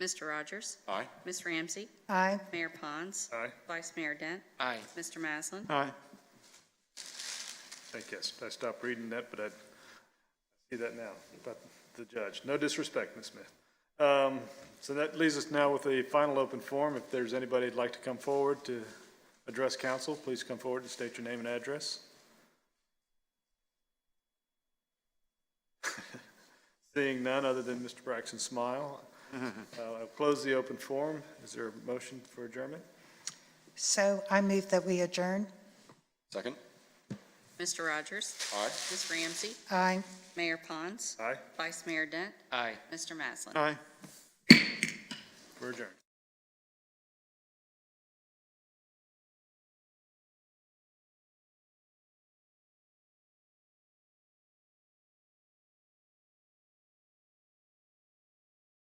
Mr. Rogers? Aye. Ms. Ramsey? Aye. Mayor Pons? Aye. Vice Mayor Dent? Aye. Mr. Maslin? Aye. I guess I stopped reading that, but I see that now, about the judge. No disrespect, Ms. Smith. Um, So that leaves us now with the final open forum. If there's anybody that'd like to come forward to address council, please come forward and state your name and address. Seeing none other than Mr. Braxton's smile, uh, I'll close the open forum. Is there a motion for adjournment? So I move that we adjourn. Second? Mr. Rogers? Aye. Ms. Ramsey? Aye. Mayor Pons? Aye, Vice Mayor Dent? Aye. Mr. Maslin? Aye. we're adjourned.